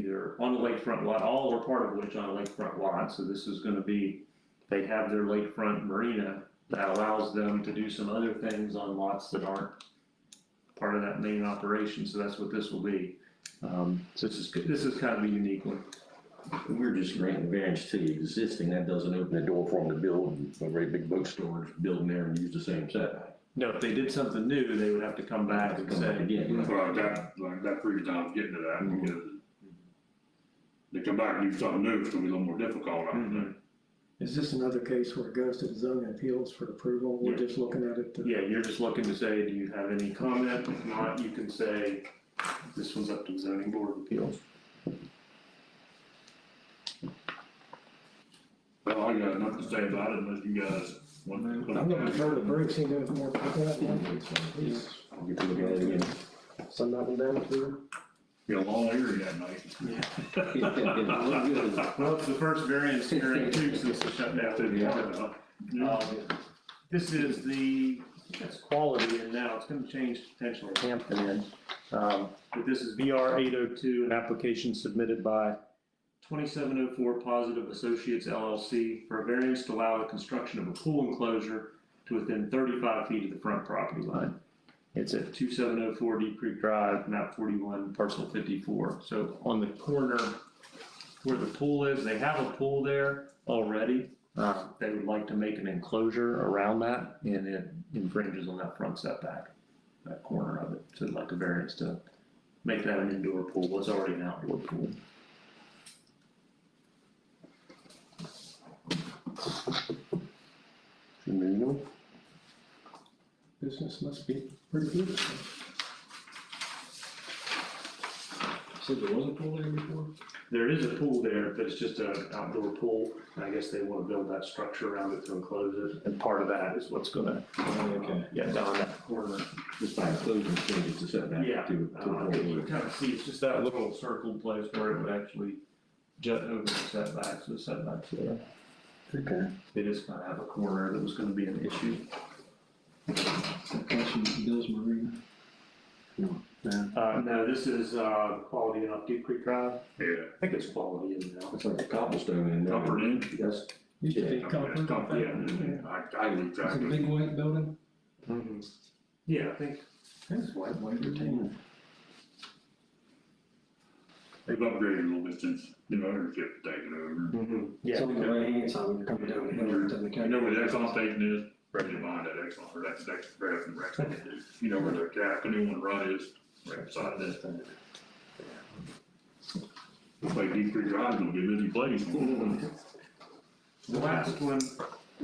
here on the lakefront lot, all or part of which on a lakefront lot, so this is gonna be, they have their lakefront marina that allows them to do some other things on lots that aren't part of that main operation, so that's what this will be. Um, so this is, this is kind of a unique one. We're just granting variance to the existing, that doesn't open the door for them to build a very big boat storage building there and use the same setback. No, if they did something new, they would have to come back and Come back say, Again, Well, that, like, that previous time I was getting to that, because they come back and do something new, it's gonna be a little more difficult, I Mm-hmm. would think. Is this another case where it goes to the zoning appeals for approval? We're just looking at it, to- yeah, you're just looking to say, do you have any comment? If not, you can say, this one's up to the zoning board of appeals. Well, I got nothing to say about it unless you guys want to. I'm gonna defer to Bruce, he knows more about that one. He's- I'll get to look at it again. Send that one down to Be a long area that night. Look Well, it's the first variance hearing too since the shutdown. Yeah. Um, This is the, it's quality and now it's gonna change potentially Hampton Inn. Um, But this is VR eight oh two, an application submitted by twenty-seven oh four Positive Associates LLC for a variance to allow the construction of a pool enclosure to within thirty-five feet of the front property line. It's at two seven oh four Deep Creek Drive, map forty-one, parcel fifty-four. So on the corner where the pool is, they have a pool there already. Uh, They would like to make an enclosure around that and it infringes on that front setback, that corner of it. So they'd like a variance to make that an indoor pool, what's already an outdoor pool. business must be pretty good. Said there was a pool there before? There is a pool there, but it's just an outdoor pool. And I guess they want to build that structure around it to enclose it. And part of that is what's gonna, Okay. yeah, down that corner. Just by closing changes to setback Yeah, to. uh, I think you kind of see, it's just that little circled place where it would actually jut over the setbacks, the setbacks there. Okay. It is gonna have a corner that was gonna be an issue. Question, Bill's Marina. Uh, no, this is, uh, quality enough Deep Creek Drive. Yeah. I think it's quality in now. It's like a cobblestone in there. Comfort Inn? Yes. Used to be I mean, it's comfort, Comfort. yeah, I, I lose It's track a of big it. white building. Yeah, I think, I think it's white, white or tan. They've upgraded a little bit since the ownership taken over. It's mm-hmm, Yeah, on the right hand side, when you're coming down the hill, it's in the You county. know where the Exxon station is? Right behind that Exxon, or that's, that's right from Rexon. You know where the ca- canoe and run is, right beside that. Looks like Deep Creek Drive's gonna be a busy place. the last one,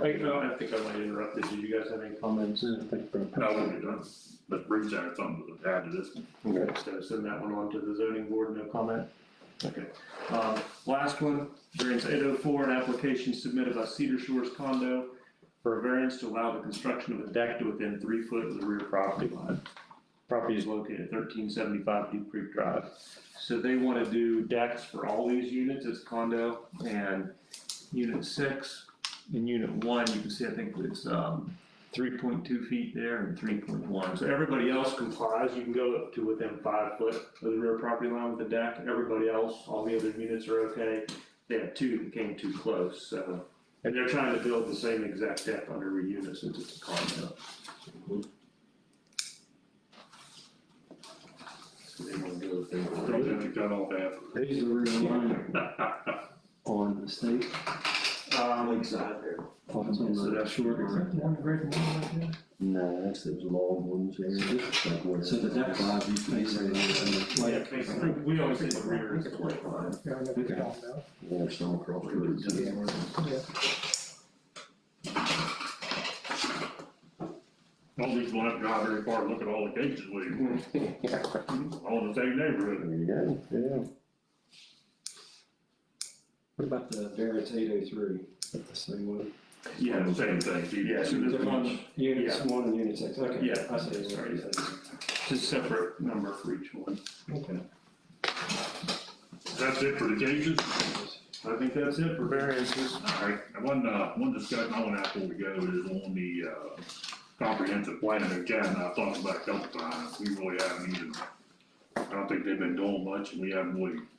I, no, I think I might have interrupted, did you guys have any comments? No, we're done. But Bruce had something to add to this one. Okay. So send that one on to the zoning board, no comment? Okay. Um, Last one, variance eight oh four, an application submitted by Cedar Shores condo for a variance to allow the construction of a deck to within three foot of the rear property line. Property is located at thirteen seventy-five Deep Creek Drive. So they want to do decks for all these units, it's condo and unit six. In unit one, you can see, I think it's, um, three point two feet there and three point one. So everybody else complies, you can go up to within five foot of the rear property line with the deck. Everybody else, all the other units are okay. They have two that came too close, so. And they're trying to build the same exact deck under a unit since it's a condo. So they wanna go with I them. don't have to cut off half. of There's the rear line on the state. Um, Lakeside there. Oh, it's on So the that's short. short. One great one right there. No, that's those long ones there. like where- So the deck five, you face it. yeah, basically, we always say the rear is the lake line. Yeah, I know Okay. we don't know. Or some across the road. Yeah. it. All these one up drive very far, look at all the cases we, all in the same neighborhood. There you go, yeah. What about the variance eight oh three? The same one? Yeah, the same thing. Yeah, so there's one, Units one and unit six, okay. Yeah, I see. sorry. It's a separate number for each one. Okay. That's it for the cases? I think that's it for variances. All right, and one, uh, one discussion I want to have before we go is on the, uh, comprehensive plan of Academy. I've talked about it a couple times. We really haven't even, I don't think they've been doing much and we haven't really